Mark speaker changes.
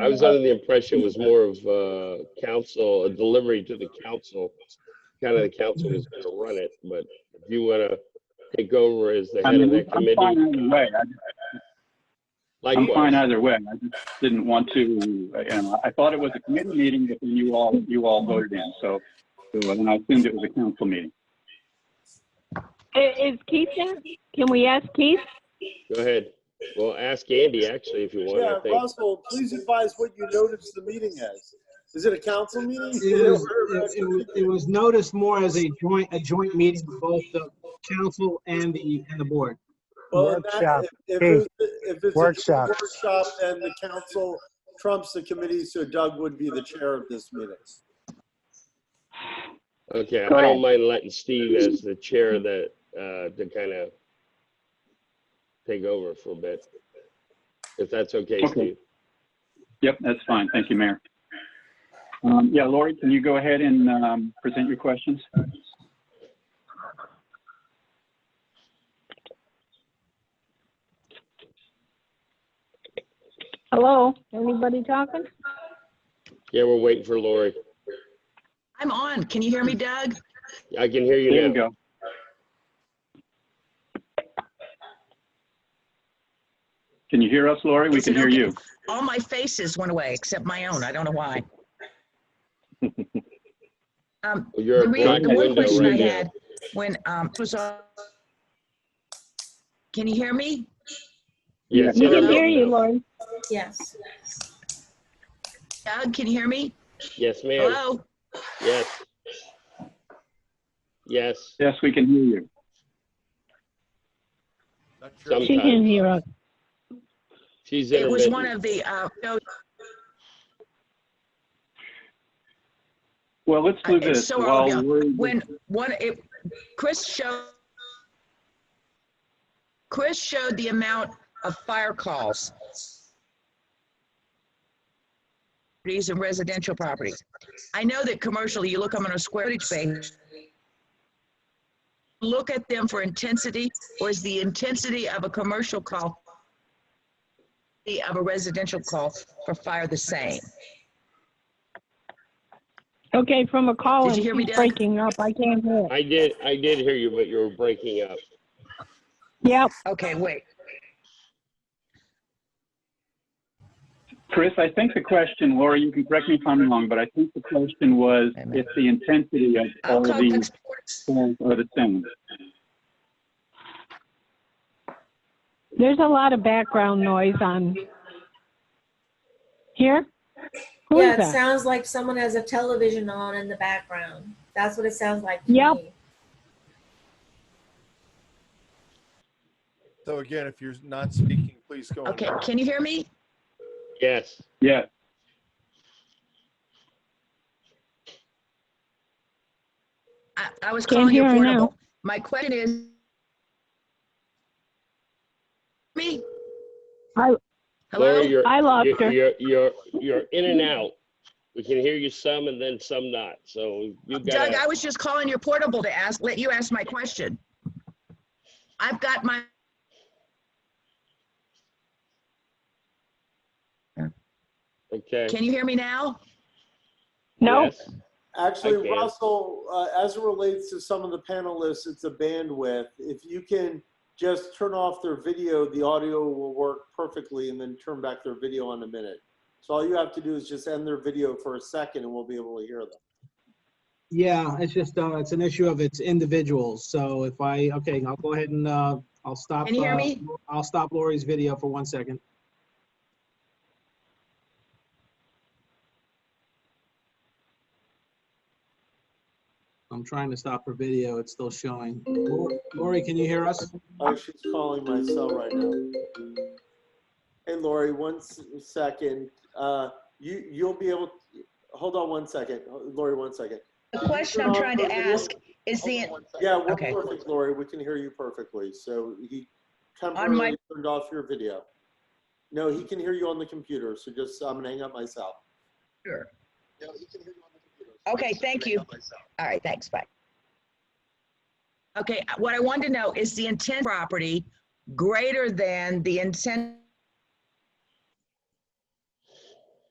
Speaker 1: I was under the impression it was more of uh council, a delivery to the council. Kind of the council was gonna run it, but if you wanna take over as the
Speaker 2: I
Speaker 1: head of
Speaker 2: mean,
Speaker 1: that
Speaker 2: I'm fine
Speaker 1: committee,
Speaker 2: either way. I- I'm fine
Speaker 1: likewise.
Speaker 2: either way. I just didn't want to, uh, you know, I thought it was a committee meeting, but then you all, you all voted in, so. so, And I assumed it was a council meeting.
Speaker 3: I- Is Keith there? Can we ask Keith?
Speaker 1: Go ahead. Well, ask Andy actually if you want,
Speaker 4: Yeah,
Speaker 1: I think.
Speaker 4: Russell, please advise what you noticed the meeting as. Is it a council meeting?
Speaker 5: It was, it- it was- it was noticed more as a joint, a joint meeting of both the council and the, and the board.
Speaker 4: Well, in that-
Speaker 6: Workshop.
Speaker 4: If if it's, if it's a
Speaker 6: Workshop.
Speaker 4: workshop and the council trumps the committee, so Doug would be the chair of this meeting.
Speaker 1: Okay, I
Speaker 3: Go ahead.
Speaker 1: don't mind letting Steve as the chair of that, uh, to kind of take over for a bit. If that's okay,
Speaker 2: Okay.
Speaker 1: Steve.
Speaker 2: Yep, that's fine. Thank you, Mayor. Um, Yeah, Lori, can you go ahead and um, present your questions?
Speaker 3: Hello? Anybody talking?
Speaker 1: Yeah, we're waiting for Lori.
Speaker 7: I'm on. Can you hear me, Doug?
Speaker 1: I can hear
Speaker 2: There
Speaker 1: you
Speaker 2: you
Speaker 1: now.
Speaker 2: go. Can you hear us, Lori? We
Speaker 7: Is
Speaker 2: can
Speaker 7: it
Speaker 2: hear
Speaker 7: okay?
Speaker 2: you.
Speaker 7: All my faces went away except my own. I don't know why. Um,
Speaker 1: Well,
Speaker 7: The
Speaker 1: You're a
Speaker 7: re-
Speaker 1: black
Speaker 7: the one
Speaker 1: window
Speaker 7: question I
Speaker 1: right now.
Speaker 7: had when, um, it was on. Can you hear me?
Speaker 1: Yes,
Speaker 3: We
Speaker 1: you're
Speaker 3: can
Speaker 1: up
Speaker 3: hear you,
Speaker 1: now.
Speaker 3: Lori.
Speaker 8: Yes.
Speaker 7: Doug, can you hear me?
Speaker 1: Yes, ma'am.
Speaker 7: Hello?
Speaker 1: Yes. Yes,
Speaker 2: Yes, we can hear you.
Speaker 3: She can
Speaker 1: sometimes.
Speaker 3: hear us.
Speaker 1: She's
Speaker 7: It was one
Speaker 1: intermittent.
Speaker 7: of the, uh, no,
Speaker 2: Well, let's do
Speaker 7: Uh, it's
Speaker 2: this
Speaker 7: so
Speaker 2: while
Speaker 7: early on.
Speaker 2: we're,
Speaker 7: when, one, it, Chris showed, Chris showed the amount of fire calls. These and residential properties. I know that commercially, you look them on a square footage basis. Look at them for intensity, or is the intensity of a commercial call the of a residential call for fire the same?
Speaker 3: Okay, from a call,
Speaker 7: Did you
Speaker 3: and
Speaker 7: hear me,
Speaker 3: she's
Speaker 7: Doug?
Speaker 3: breaking up. I can't hear.
Speaker 1: I did, I did hear you, but you were breaking up.
Speaker 3: Yep,
Speaker 7: Okay, wait.
Speaker 2: Chris, I think the question, Laura, you can correct me if I'm wrong, but I think the question was
Speaker 7: Amen.
Speaker 2: if the intensity of
Speaker 7: Uh,
Speaker 2: all of these
Speaker 7: complex-
Speaker 2: forms are the same.
Speaker 3: there's a lot of background noise on. Here? Who
Speaker 8: yeah,
Speaker 3: is
Speaker 8: it
Speaker 3: that?
Speaker 8: sounds like someone has a television on in the background. That's what it sounds like. to
Speaker 3: Yep.
Speaker 8: me.
Speaker 9: So again, if you're not speaking, please go. on.
Speaker 7: Okay, can you hear me?
Speaker 1: Yes,
Speaker 2: Yeah,
Speaker 7: I, I was
Speaker 3: Can't
Speaker 7: calling you
Speaker 3: hear her now.
Speaker 7: affordable. My question is. Me?
Speaker 3: I-
Speaker 1: Lori,
Speaker 7: Hello?
Speaker 1: you're,
Speaker 3: I lost
Speaker 1: you're,
Speaker 3: her.
Speaker 1: you're, you're, you're in and out. We can hear you some and then some not, so you've got
Speaker 7: Doug, I
Speaker 1: to.
Speaker 7: was just calling your portable to ask, let you ask my question. I've got my.
Speaker 1: Okay.
Speaker 7: Can you hear me now?
Speaker 3: No?
Speaker 1: Yes. I
Speaker 4: Actually,
Speaker 1: can.
Speaker 4: Russell, uh, as it relates to some of the panelists, it's a bandwidth. If you can just turn off their video, the audio will work perfectly and then turn back their video on a minute. So all you have to do is just end their video for a second and we'll be able to hear them.
Speaker 5: Yeah, it's just, uh, it's an issue of it's individuals. So if I, okay, I'll go ahead and, uh, I'll stop.
Speaker 7: Can you hear
Speaker 5: uh,
Speaker 7: me?
Speaker 5: I'll stop Lori's video for one second. I'm trying to stop her video. It's still showing. Lori- Lori, can you hear us?
Speaker 4: Oh, she's calling my cell right now. Hey, Lori, one s- second. Uh, you, you'll be able, hold on one second. Lori, one second.
Speaker 7: The
Speaker 4: Can you
Speaker 7: question
Speaker 4: turn
Speaker 7: I'm
Speaker 4: off
Speaker 7: trying
Speaker 4: your
Speaker 7: to
Speaker 4: video?
Speaker 7: ask is the,
Speaker 4: Yeah, we're
Speaker 7: Okay.
Speaker 4: perfect, Lori. We can hear you perfectly. So he
Speaker 7: my-
Speaker 4: temporarily turned off your video. No, he can hear you on the computer, so just, I'm gonna hang up myself.
Speaker 7: Sure.
Speaker 4: No, he can hear you on the computer.
Speaker 7: Okay, thank you. All right, thanks, bye. Okay, what I wanted to know, is the intent property greater than the intent